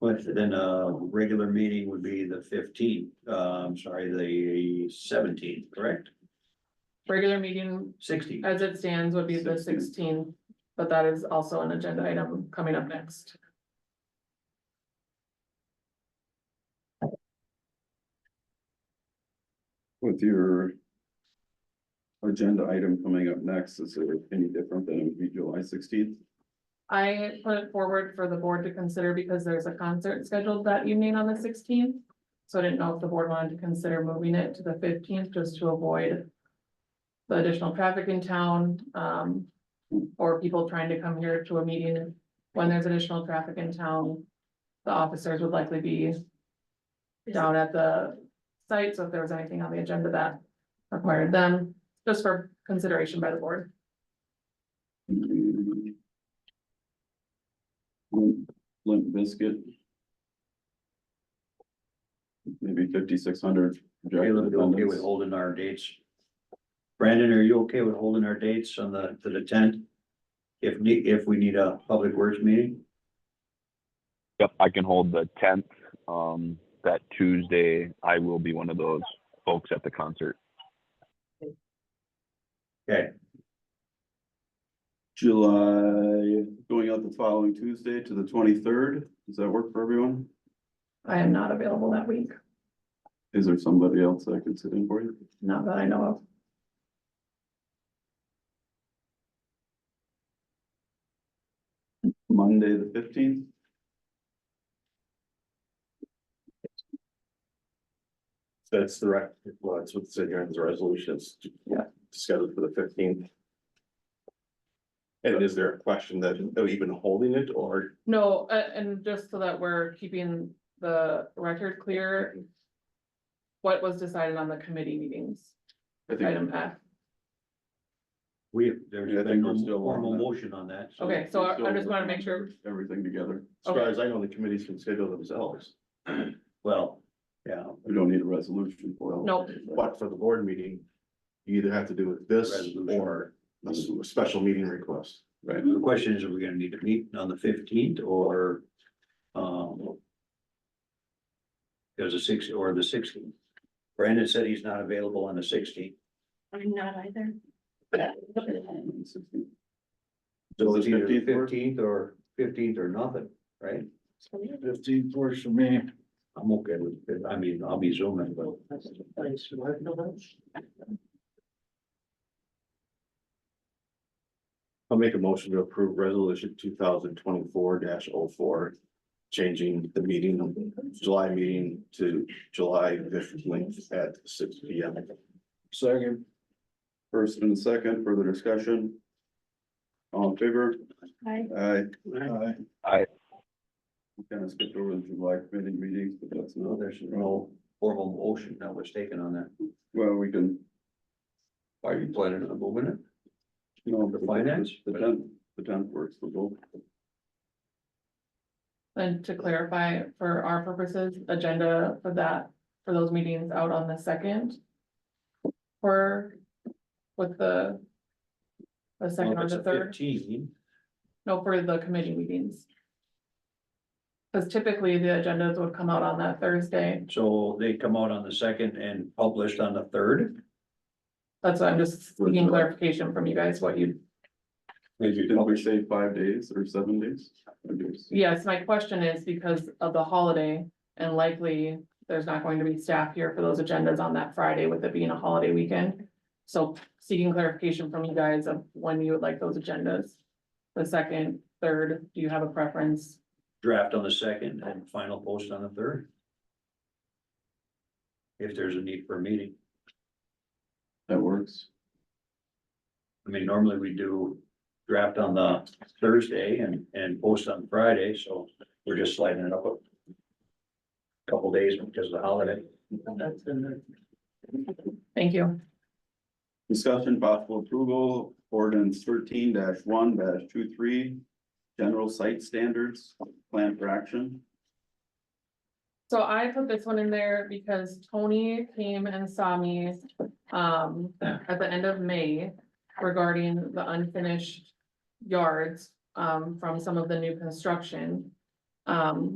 But then a regular meeting would be the fifteenth, uh, I'm sorry, the seventeenth, correct? Regular meeting Sixteenth. as it stands would be the sixteenth, but that is also an agenda item coming up next. With your. Agenda item coming up next, is it any different than it would be July sixteenth? I put it forward for the board to consider because there's a concert scheduled that evening on the sixteenth. So I didn't know if the board wanted to consider moving it to the fifteenth just to avoid. The additional traffic in town, um, or people trying to come here to a meeting when there's additional traffic in town. The officers would likely be down at the site, so if there was anything on the agenda that required them, just for consideration by the board. Limp biscuit. Maybe fifty-six hundred. Caleb, you okay with holding our dates? Brandon, are you okay with holding our dates on the, to the tenth? If need, if we need a public works meeting? Yep, I can hold the tenth. Um, that Tuesday, I will be one of those folks at the concert. July, going out the following Tuesday to the twenty-third, does that work for everyone? I am not available that week. Is there somebody else that could sit in for you? Not that I know of. Monday, the fifteenth? That's the right, well, that's what's in here in the resolutions. Yeah. Scheduled for the fifteenth. And is there a question that, oh, of even holding it or No, a- and just so that we're keeping the record clear. What was decided on the committee meetings, I think, item F. We, Yeah, I there's think been we're no still on formal that. motion on that, so. Okay, so I I just wanna make sure, everything together, as far Okay. as I know, the committees can schedule themselves. Well, yeah, we don't need a resolution for it. no, But for the board meeting, you either have to do with this Resolution. or a s- a special meeting request. Right, the question is, are we gonna need to meet on the fifteenth or, um. There's a six, or the sixteenth. Brandon said he's not available on the sixteenth. I'm not either. So it's Does the either 15th work? fifteenth or fifteenth or nothing, right? Fifteen works for me. I'm okay with, it. I mean, I'll be zooming, but. I'll make a motion to approve resolution two thousand twenty-four 4 Changing the meeting, July meeting to July fifteenth at six P M. Second. First and second, further discussion. All in favor? Aye. Aye. Aye. Aye. We Kind of skipped over the July committee meetings, but that's No, not, there's no formal motion that was taken on that. well, we can, Are you planning on moving it? you know. The finance? The tenth, the tenth works for both. and to clarify, for our purposes, agenda for that, for those meetings out on the second. For, with the. The second or the third. Fifteen, No, for the committee meetings. Cause typically the agendas would come out on that Thursday. so they come out on the second and published on the third. That's why I'm just seeking clarification from you guys, what you, Didn't we say five days or seven days? Five days. yes, my question is because of the holiday. And likely, there's not going to be staff here for those agendas on that Friday with it being a holiday weekend. So seeking clarification from you guys of when you would like those agendas. The second, third, do you have a preference? draft on the second and final post on the third. If there's a need for a meeting, That works. I mean, normally we do draft on the Thursday and, and post on Friday, so we're just sliding it up a couple days because of the holiday. Thank you. Discussion possible approval, ordinance thirteen one 23 General site standards, plan for action. So I put this one in there because Tony came and saw me, um, at the end of May regarding the unfinished yards, um, from some of the new construction. Um,